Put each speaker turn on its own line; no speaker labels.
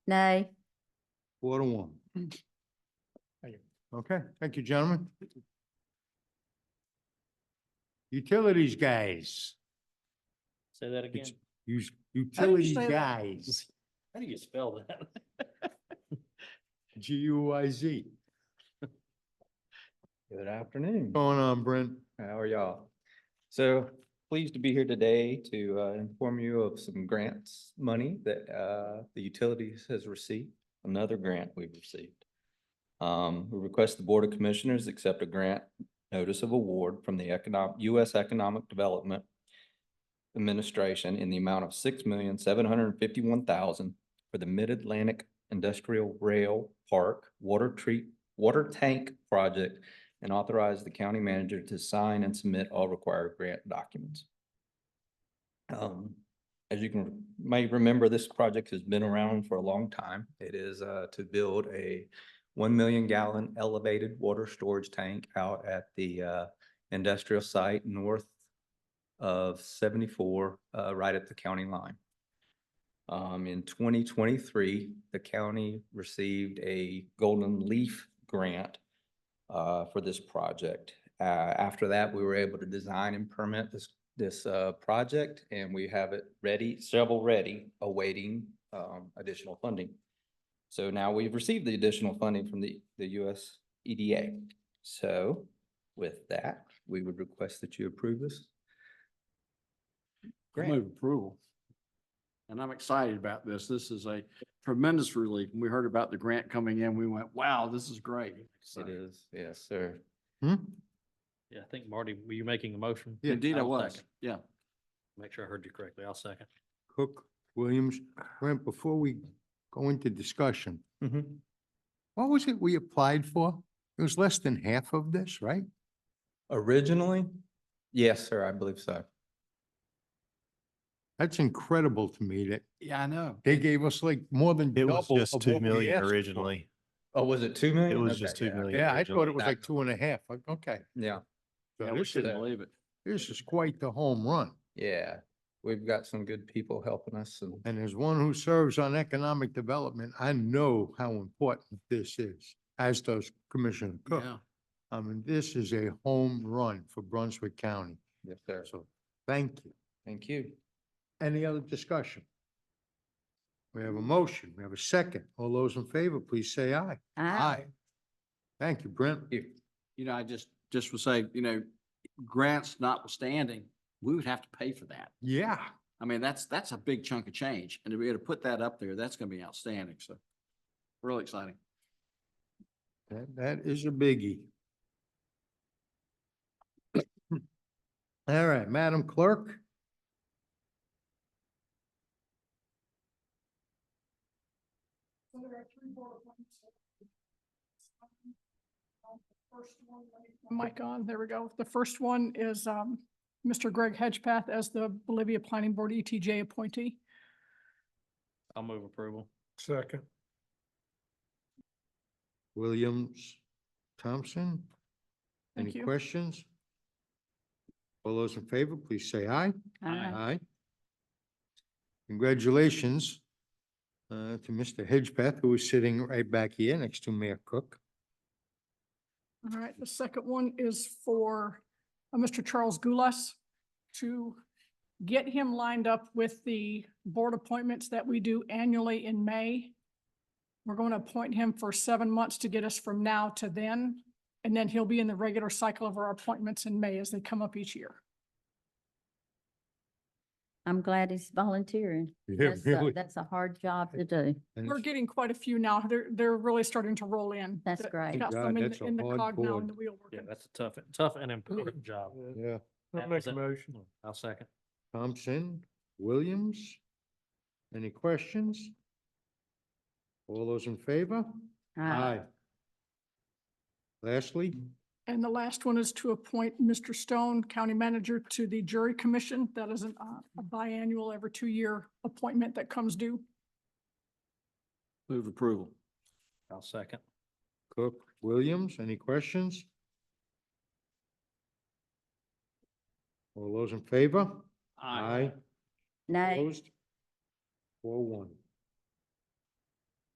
Nay.
Four to one. Okay, thank you, gentlemen. Utilities guys,
Say that again.
use utilities
say that?
guys,
How do you spell that?
G U I Z.
Good afternoon.
Going on, Brent?
How are y'all? So pleased to be here today to uh, inform you of some grants money that uh, the utilities has received, another grant we've received. Um, We request the Board of Commissioners accept a grant notice of award from the economic, U.S. Economic Development Administration in the amount of six million, seven hundred and fifty-one thousand for the Mid-Atlantic Industrial Rail Park Water Treat, Water Tank Project and authorize the county manager to sign and submit all required grant documents. Um, as you can, may remember, this project has been around for a long time. It is, uh, to build a one million gallon elevated water storage tank out at the, uh, industrial site north of seventy-four, uh, right at the county line. Um, in twenty twenty-three, the county received a Golden Leaf grant uh, for this project. Uh, after that, we were able to design and permit this, this, uh, project and we have it ready, several ready, awaiting, um, additional funding. So now we've received the additional funding from the, the US EDA. So with that, we would request that you approve this. grant.
Move approval. And I'm excited about this. This is a tremendous relief. When we heard about the grant coming in, we went, wow, this is great. So,
It is, yes, sir.
Hmm?
Yeah, I think Marty, were you making a motion?
Yeah.
Indeed, I
I'll
was.
second.
Yeah.
Make sure I heard you correctly. I'll second.
Cook, Williams, Brent, before we go into discussion,
Mm-hmm.
what was it we applied for? It was less than half of this, right?
Originally, yes, sir, I believe so.
That's incredible to me that
Yeah, I know.
they gave us like more than
It
double.
was just
of
two
what we asked
million
for.
originally.
Oh, was it two million?
It was
Okay,
just two
yeah,
million.
Yeah, I
originally.
thought it was like two and a half. Like, Okay.
Yeah.
So
Yeah, we
this is-
shouldn't believe it.
This is quite the home run.
Yeah, we've got some good people helping us and
And as one who serves on economic development, I know how important this is, as does Commissioner Cook.
Yeah.
I mean, this is a home run for Brunswick County.
yes, sir.
So thank you.
Thank you.
Any other discussion? We have a motion. We have a second. All those in favor, please say aye. Thank you, Brent.
You.
You know, I just, just would say, you know, grants notwithstanding, we would have to pay for that.
Yeah.
I mean, that's, that's a big chunk of change. And to be able to put that up there, that's going to be outstanding. So really exciting.
That, that is a biggie. All right, Madam Clerk.
Mic on, there we go. The first one is um, Mr. Greg Hedgepath as the Bolivia Planning Board ETJ appointee.
I'll move approval.
Second.
Williams, Thompson.
Thank
Any
you.
questions? All those in favor, please say aye. Aye. Congratulations uh, to Mr. Hedgepath, who is sitting right back here next to Mayor Cook.
All right, the second one is for uh, Mr. Charles Gulas to get him lined up with the board appointments that we do annually in May. We're going to appoint him for seven months to get us from now to then, and then he'll be in the regular cycle of our appointments in May as they come up each year.
I'm glad he's volunteering. That's a, that's a hard job to do.
And
We're getting quite a few now. They're, they're really starting to roll in.
That's
Th-
great.
Got
God,
some in,
that's
the-
a
in the
hard
cog now
board.
in the wheel
Yeah,
working.
that's a tough, tough and important job.
Yeah,
That was it. I'll second.
Thompson, Williams. Any questions? All those in favor? Lastly,
And the last one is to appoint Mr. Stone, County Manager, to the Jury Commission. That is an, uh, a biannual, every two-year appointment that comes due.
Move approval.
I'll second.
Cook, Williams, any questions? All those in favor? Opposed? Four one.